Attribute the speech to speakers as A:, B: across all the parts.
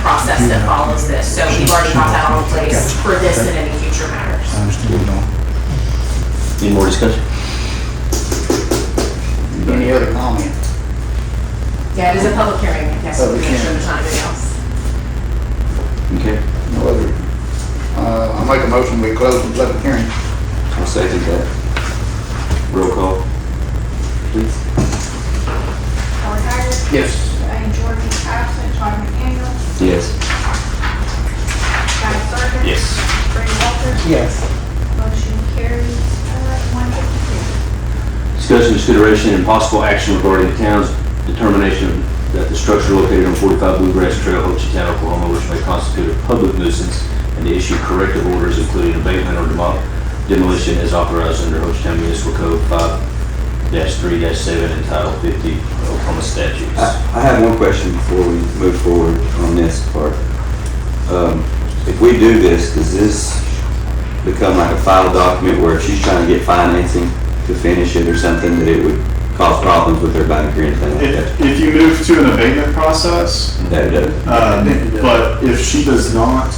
A: process that follows this, so we've already got that all in place for this and any future matters.
B: I understand what you're doing.
C: Any more discussion?
D: Any other comment?
A: Yeah, it is a public hearing, I guess, we
D: Public
A: make sure
D: hearing.
A: there's not anything else.
C: Okay,
D: No other? Uh, I make a motion, we close the public hearing.
C: I'll second that. Roll call, please.
E: Howard Hager.
D: Yes.
E: Diane Jordan is absent. Todd McDaniel.
C: Yes.
E: Guy Sargent. Brady Walters.
D: Yes.
E: Motion carries. Uh, one fifty-two.
C: Discussion, consideration, and possible action regarding the town's determination that the structure located on 45 Bluegrass Trail, Hochatown, Oklahoma, which may constitute a public nuisance, and to issue corrective orders including abatement or demol- demolition as authorized under Hochatown Municipal Code 5-3-7 and Title 50 Oklahoma
F: I
C: statutes.
F: I have one question before we move forward on this part. Um, If we do this, does this become like a file document where if she's trying to get financing to finish it or something, that it would cause problems with her bank or anything like that?
G: If, if you move to an abatement process,
F: That does.
G: um, but if she does not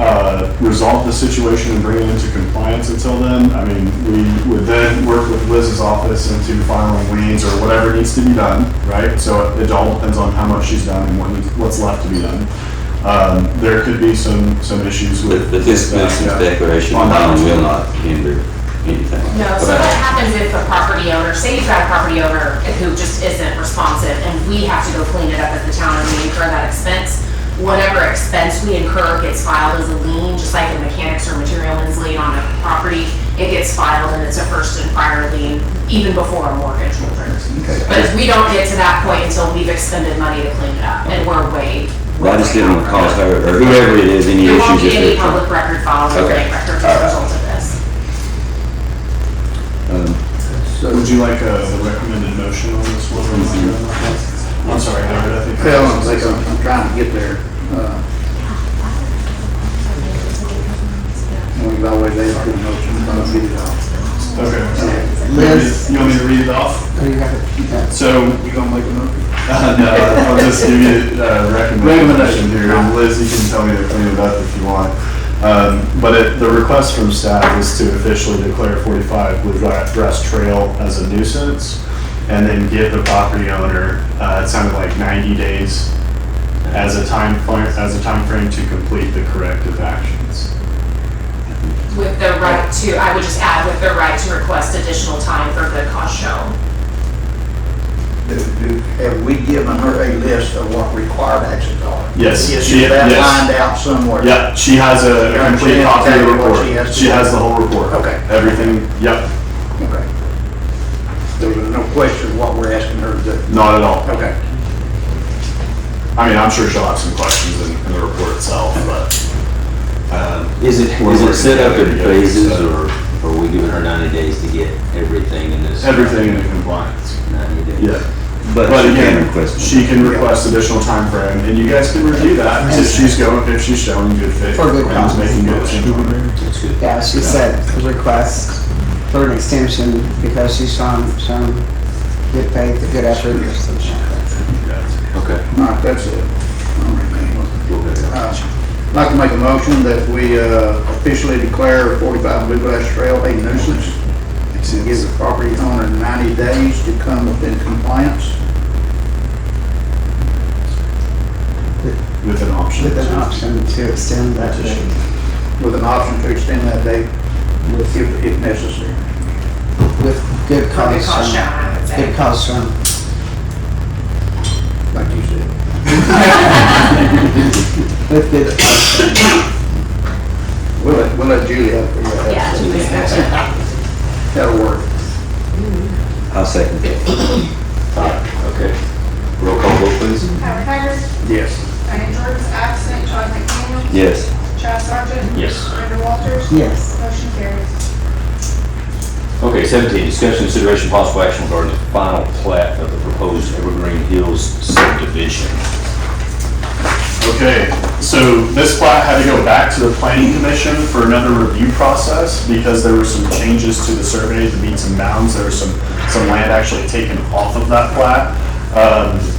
G: uh, resolve the situation and bring it into compliance until then, I mean, we would then work with Liz's office into filing liens or whatever needs to be done, right? So it all depends on how much she's done and what needs- what's left to be done. Um, There could be some, some issues with.
F: But but this nuisance
G: Yeah.
F: declaration
G: On that.
F: alone will not hinder anything like
A: No,
F: that.
A: so what happens if a property owner, say you've got a property owner who just isn't responsive and we have to go clean it up as the town and we incur that expense, whatever expense we incur gets filed as a lien, just like a mechanics or materialman's lien on a property, it gets filed and it's a first and prior lien, even before a mortgage will turn. But if we don't get to that point until we've expended money to clean it up and we're way.
F: Well, I just didn't want to cause her, or whoever it is, any
A: There won't
F: issues.
A: be any
F: if it-
A: public record filed or
F: Okay.
A: any records as
F: All
A: a
F: right.
A: result of this.
F: Um,
G: Would you like a recommended motion on this one? or am I good on
F: Mm-hmm.
G: that? I'm sorry, Howard, I think. I-
D: Well, I'm like, I'm I'm trying to get there. Uh, We've always asked for a motion, but I'll get it off.
G: Okay.
D: Liz?
G: You want me to read it off?
D: Oh, you have to, you have
G: So
D: You gonna make a motion?
G: Uh, No, I'll just give you a recommendation
D: Recommendation.
G: here. And Liz, you can tell me to clean it up if you want. Um, But it- the request from staff is to officially declare 45 Bluegrass Trail as a nuisance and then give the property owner, uh, it sounded like 90 days as a time, fr- as a timeframe to complete the corrective actions.
A: With the right to, I would just add with the right to request additional time for the cost shown.
D: Do- do- Have we given her a list of what required actions are?
G: Yes,
D: Is
G: she-
D: that
G: yes.
D: lined out somewhere?
G: Yep, she has a a
D: Yeah, she
G: complete
D: has
G: copy of the
D: exactly what
G: report.
D: she has to
G: She
D: do.
G: has the whole report.
D: Okay.
G: Everything, yep,
D: Okay. There was no question what we're asking her to do.
G: not at all.
D: Okay.
G: I mean, I'm sure she'll have some questions in, in the report itself, but, um,
C: Is it,
G: We're
C: is it
G: working
C: set up in
G: together, yes,
C: phases,
G: so-
C: or or are we giving her 90 days to get everything in this?
G: everything in compliance.
C: 90 days?
G: Yeah,
F: But
G: but
F: she can
G: again,
F: request. it.
G: she can request additional time frame, and you guys can review that if she's going, if she's showing good faith.
H: For good
G: and is
H: cause.
G: Making good change.
C: That's good.
H: Yeah, she said request for an extension because she's shown, shown good faith, good effort or something like that.
C: Okay.
D: All right, that's it. All right, man.
C: We'll go down.
D: Uh, I'd like to make a motion that we uh, officially declare 45 Blue Grass Trail a nuisance and give the property owner 90 days to come within compliance
G: With an option.
H: With an option to extend that date
D: with an option to extend that date if, if necessary.
H: with good
A: For the cost
H: cause
A: shown,
H: shown.
A: I would say.
H: Good cause shown.
D: Like you said.
H: With good,
D: We'll let, we'll let Julie have the, uh,
A: Yeah, to this action.
D: that'll work.
F: I'll second that.
C: Okay. Roll call vote, please.
E: Howard Hager.
D: Yes.
E: Diane Jordan is absent. Todd McDaniel.
F: Yes.
E: Chad Sargent.
C: Yes.
E: Brady Walters.
H: yes.
E: Motion carries.
C: Okay, 17, discussion, consideration, possible action regarding the final plat of the proposed Evergreen Hills subdivision.
G: Okay, so this plat had to go back to the planning commission for another review process because there were some changes to the survey, the meets and bounds, there was some, some land actually taken off of that plat. Um,